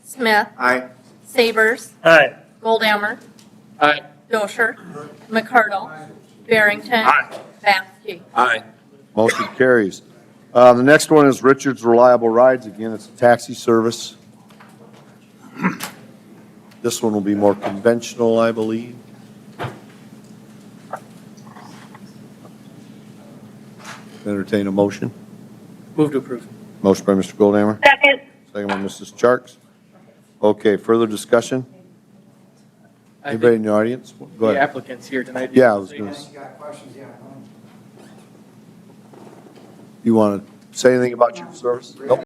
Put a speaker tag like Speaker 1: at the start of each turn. Speaker 1: Smith,
Speaker 2: Aye.
Speaker 1: Sabers,
Speaker 3: Aye.
Speaker 1: Goldammer,
Speaker 3: Aye.
Speaker 1: Dosher, McCardle, Barrington, Basky.
Speaker 3: Aye.
Speaker 2: Motion carries. Uh, The next one is Richard's Reliable Rides. Again, it's a taxi service. This one will be more conventional, I believe. Entertain a motion.
Speaker 3: Move to approve.
Speaker 2: Motion by Mr. Goldhammer,
Speaker 4: Second.
Speaker 2: second by Mrs. Charks. Okay, further discussion?
Speaker 3: I
Speaker 2: Anybody
Speaker 3: think
Speaker 2: in the audience? Go
Speaker 3: the
Speaker 2: ahead.
Speaker 3: applicant's here tonight.
Speaker 2: Yeah, I was gonna
Speaker 5: Unless you got questions, yeah.
Speaker 2: You want to say anything about your service? Nope.